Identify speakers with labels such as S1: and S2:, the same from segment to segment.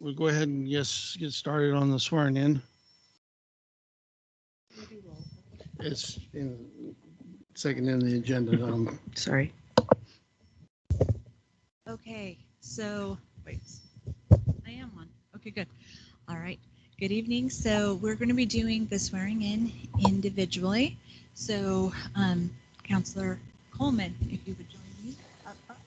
S1: we'll go ahead and yes, get started on the swearing in. It's in, second in the agenda. um,
S2: Sorry.
S3: Okay, so, wait, I am on. Okay, good. All right, good evening. So we're going to be doing the swearing in individually. So um, Counselor Coleman, if you would join me. up front.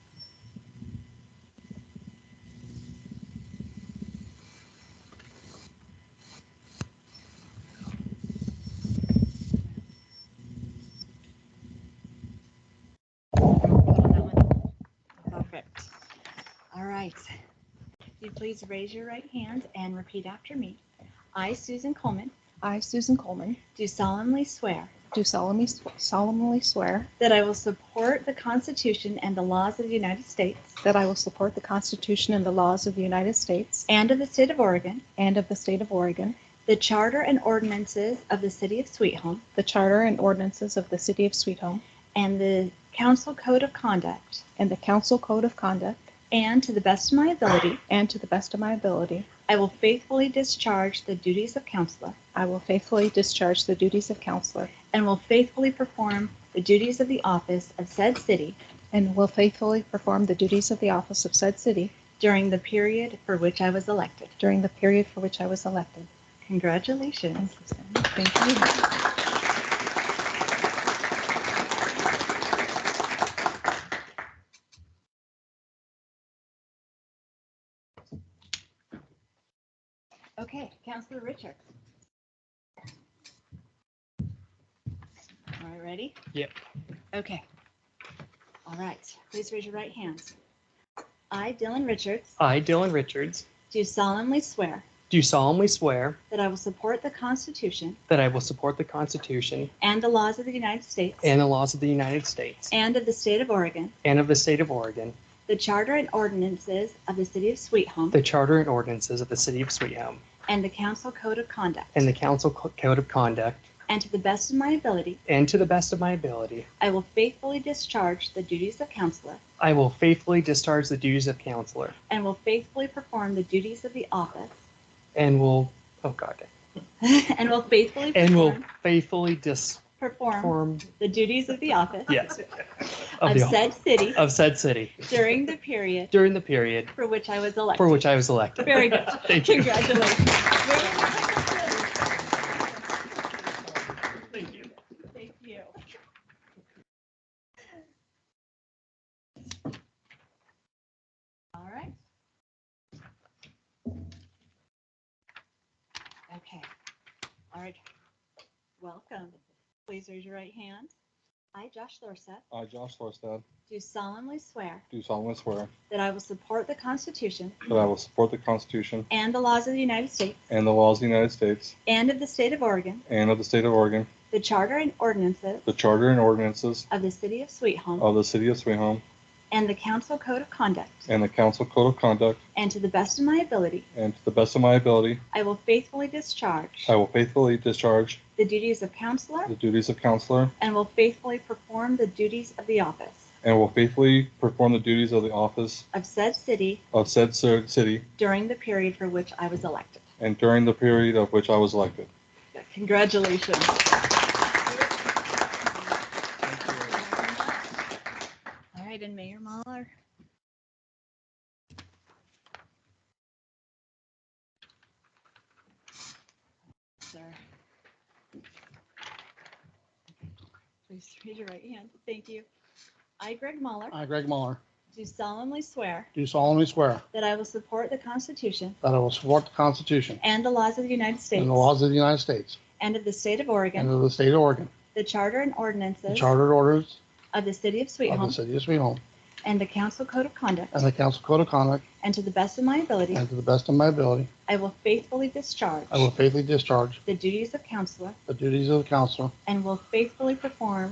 S3: Perfect. All right. If you please raise your right hand and repeat after me. I, Susan Coleman,
S4: I, Susan Coleman,
S3: do solemnly swear
S4: do solemnly solemnly swear
S3: that I will support the Constitution and the laws of the United States
S4: that I will support the Constitution and the laws of the United States
S3: and of the State of Oregon,
S4: and of the State of Oregon,
S3: the Charter and ordinances of the City of Sweet Home,
S4: the Charter and ordinances of the City of Sweet Home,
S3: and the Council Code of Conduct,
S4: and the Council Code of Conduct,
S3: and to the best of my ability,
S4: and to the best of my ability,
S3: I will faithfully discharge the duties of counselor
S4: I will faithfully discharge the duties of counselor
S3: and will faithfully perform the duties of the office of said city
S4: and will faithfully perform the duties of the office of said city
S3: during the period for which I was elected.
S4: during the period for which I was elected.
S3: Congratulations.
S4: Thank you.
S3: Okay, Counselor Richards. All right, ready?
S1: Yep.
S3: Okay. All right, please raise your right hand. I, Dylan Richards,
S5: I, Dylan Richards,
S3: do solemnly swear
S5: do solemnly swear
S3: that I will support the Constitution
S5: that I will support the Constitution
S3: and the laws of the United States
S5: and the laws of the United States
S3: and of the State of Oregon,
S5: and of the State of Oregon,
S3: the Charter and ordinances of the City of Sweet Home,
S5: the Charter and ordinances of the City of Sweet Home,
S3: and the Council Code of Conduct,
S5: and the Council Co- Code of Conduct,
S3: and to the best of my ability,
S5: and to the best of my ability,
S3: I will faithfully discharge the duties of counselor
S5: I will faithfully discharge the duties of counselor
S3: and will faithfully perform the duties of the office
S5: and will, oh God,
S3: and will faithfully
S5: and will
S3: perform-
S5: faithfully disperm,
S3: perform the duties of the office
S5: yes, of
S3: of
S5: the,
S3: said city
S5: of said city
S3: during the period
S5: during the period
S3: for which I was elected.
S5: for which I was elected.
S3: Very good.
S5: Thank you.
S3: Congratulations. Very nice. Thank you. All right. Okay. All right. Welcome. Please raise your right hand. I, Josh Lorset,
S6: I, Josh Forstad,
S3: do solemnly swear
S6: do solemnly swear
S3: that I will support the Constitution
S6: that I will support the Constitution
S3: and the laws of the United States
S6: and the laws of the United States
S3: and of the State of Oregon,
S6: and of the State of Oregon,
S3: the Charter and ordinances
S6: the Charter and ordinances
S3: of the City of Sweet Home,
S6: of the City of Sweet Home,
S3: and the Council Code of Conduct,
S6: and the Council Code of Conduct,
S3: and to the best of my ability,
S6: and to the best of my ability,
S3: I will faithfully discharge
S6: I will faithfully discharge
S3: the duties of counselor
S6: the duties of counselor
S3: and will faithfully perform the duties of the office
S6: and will faithfully perform the duties of the office
S3: of said city
S6: of said ci- city
S3: during the period for which I was elected.
S6: and during the period of which I was elected.
S3: Congratulations. All right, and Mayor Muller. Sir. Please raise your right hand. Thank you. I, Greg Muller,
S1: I, Greg Muller,
S3: do solemnly swear
S1: do solemnly swear
S3: that I will support the Constitution
S1: that I will support the Constitution
S3: and the laws of the United States
S1: and the laws of the United States
S3: and of the State of
S1: and
S3: Oregon,
S1: of the state of Oregon,
S3: the Charter and
S1: the
S3: ordinances
S1: chartered orders
S3: of the City of Sweet
S1: of the
S3: Home,
S1: city of Sweet Home,
S3: and the Council Code of Conduct,
S1: and the council code of conduct,
S3: and to the best of my ability,
S1: and to the best of my ability,
S3: I will faithfully discharge
S1: I will faithfully discharge
S3: the duties of counselor
S1: the duties of the council
S3: and will faithfully perform